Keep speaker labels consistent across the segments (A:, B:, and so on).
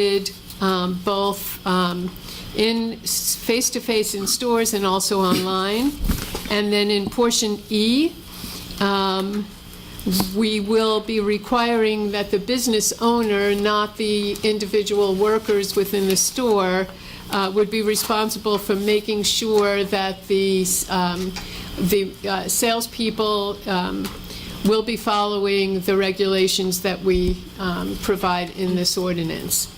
A: did, um, both um, in, s- face-to-face in stores and also online. And then in portion E, um, we will be requiring that the business owner, not the individual workers within the store, uh, would be responsible for making sure that the, um, the uh, salespeople um, will be following the regulations that we um, provide in this ordinance.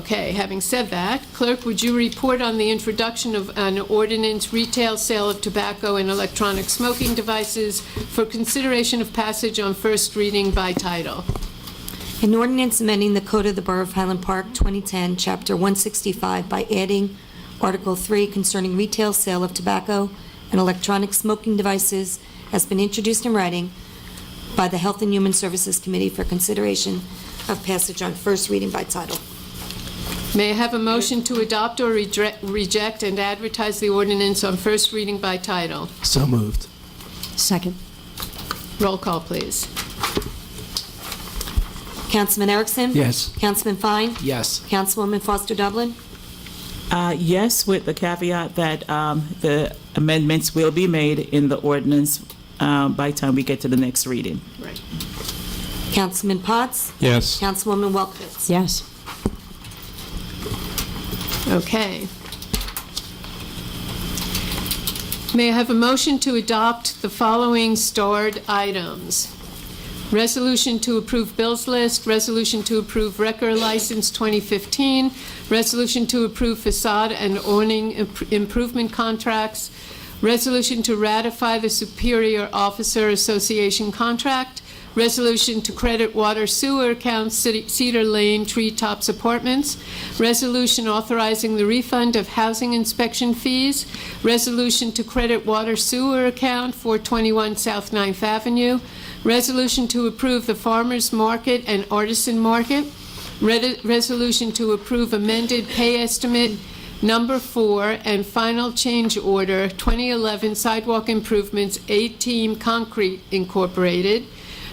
A: Okay, having said that, clerk, would you report on the introduction of an ordinance retail sale of tobacco and electronic smoking devices for consideration of passage on first reading by title?
B: An ordinance amending the Code of the Borough of Highland Park, 2010, Chapter 165, by adding Article 3 concerning retail sale of tobacco and electronic smoking devices has been introduced in writing by the Health and Human Services Committee for consideration of passage on first reading by title.
A: May I have a motion to adopt or redre- reject and advertise the ordinance on first reading by title?
C: So moved.
D: Second.
A: Roll call, please.
B: Councilman Erickson?
C: Yes.
B: Councilman Fine?
C: Yes.
B: Councilwoman Foster Dublin?
E: Uh, Yes, with the caveat that um, the amendments will be made in the ordinance uh, by time we get to the next reading.
A: Right.
B: Councilman Potts?
C: Yes.
B: Councilwoman Welkowitz?
D: Yes.
A: Okay. May I have a motion to adopt the following starred items? Resolution to approve bills list, resolution to approve wrecker license 2015, resolution to approve facade and awning imp- improvement contracts, resolution to ratify the Superior Officer Association contract, resolution to credit water sewer accounts City- Cedar Lane Treetops Apartments, resolution authorizing the refund of housing inspection fees, resolution to credit water sewer account 421 South Ninth Avenue, resolution to approve the farmers market and artisan market, Red- resolution to approve amended pay estimate number four and final change order 2011 sidewalk improvements A-Team Concrete Incorporated,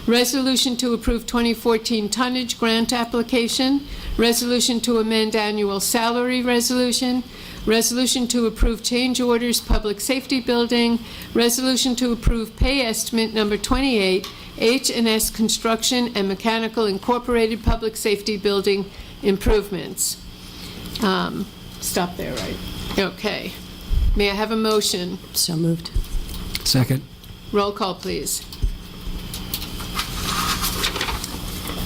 A: resolution to approve 2014 tonnage grant application, resolution to amend annual salary resolution, resolution to approve change orders public safety building, resolution to approve pay estimate number 28 h and S Construction and Mechanical Incorporated Public Safety Building Improvements. Um, Stop there, right? Okay. May I have a motion?
D: So moved.
C: Second.
A: Roll call, please.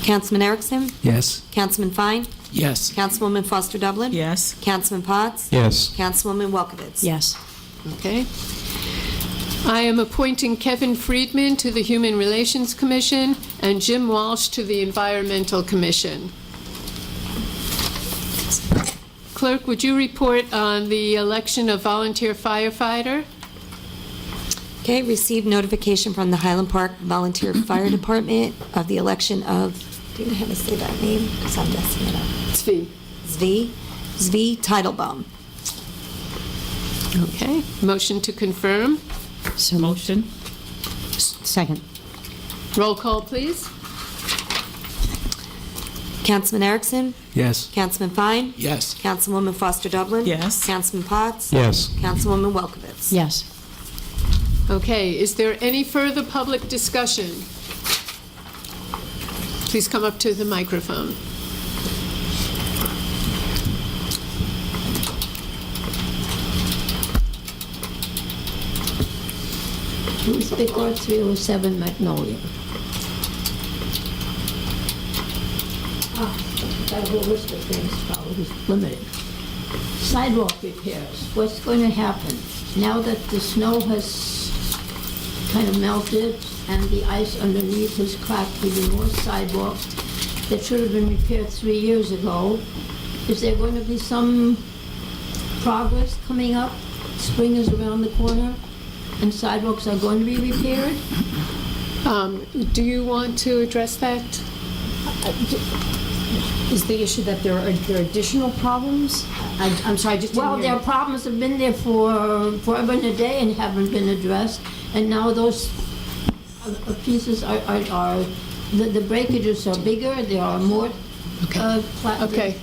B: Councilman Erickson?
C: Yes.
B: Councilman Fine?
C: Yes.
B: Councilwoman Foster Dublin?
E: Yes?
B: Councilman Potts?
C: Yes.
B: Councilwoman Welkowitz?
D: Yes.
A: Okay. I am appointing Kevin Friedman to the Human Relations Commission and Jim Walsh to the Environmental Commission. Clerk, would you report on the election of volunteer firefighter?
B: Okay, received notification from the Highland Park Volunteer Fire Department of the election of, do you have to say that name? Because I'm messing it up.
A: Zvi.
B: Zvi, Zvi Titlebaum.
A: Okay, motion to confirm.
D: So moved.
E: Motion?
D: S- Second.
A: Roll call, please.
B: Councilman Erickson?
C: Yes.
B: Councilman Fine?
C: Yes.
B: Councilwoman Foster Dublin?
E: Yes.
B: Councilman Potts?
C: Yes.
B: Councilwoman Welkowitz?
D: Yes.
A: Okay, is there any further public discussion? Please come up to the microphone.
F: Louis Picard, 307 Magnolia. Ah, That whole list of things probably is limited. Sidewalk repairs, what's going to happen? Now that the snow has kind of melted and the ice underneath has cracked even more sidewalks that should have been repaired three years ago, is there going to be some progress coming up? Spring is around the corner and sidewalks are going to be repaired?
A: Um, Do you want to address that?
G: Is the issue that there are there are additional problems? I- I'm sorry, I just
F: Well,
G: didn't hear.
F: their problems have been there for forever and a day and haven't been addressed, and now those uh, uh, pieces are, are, are- the the breakages are bigger, there are more Okay.
H: uh, pla-
F: Okay.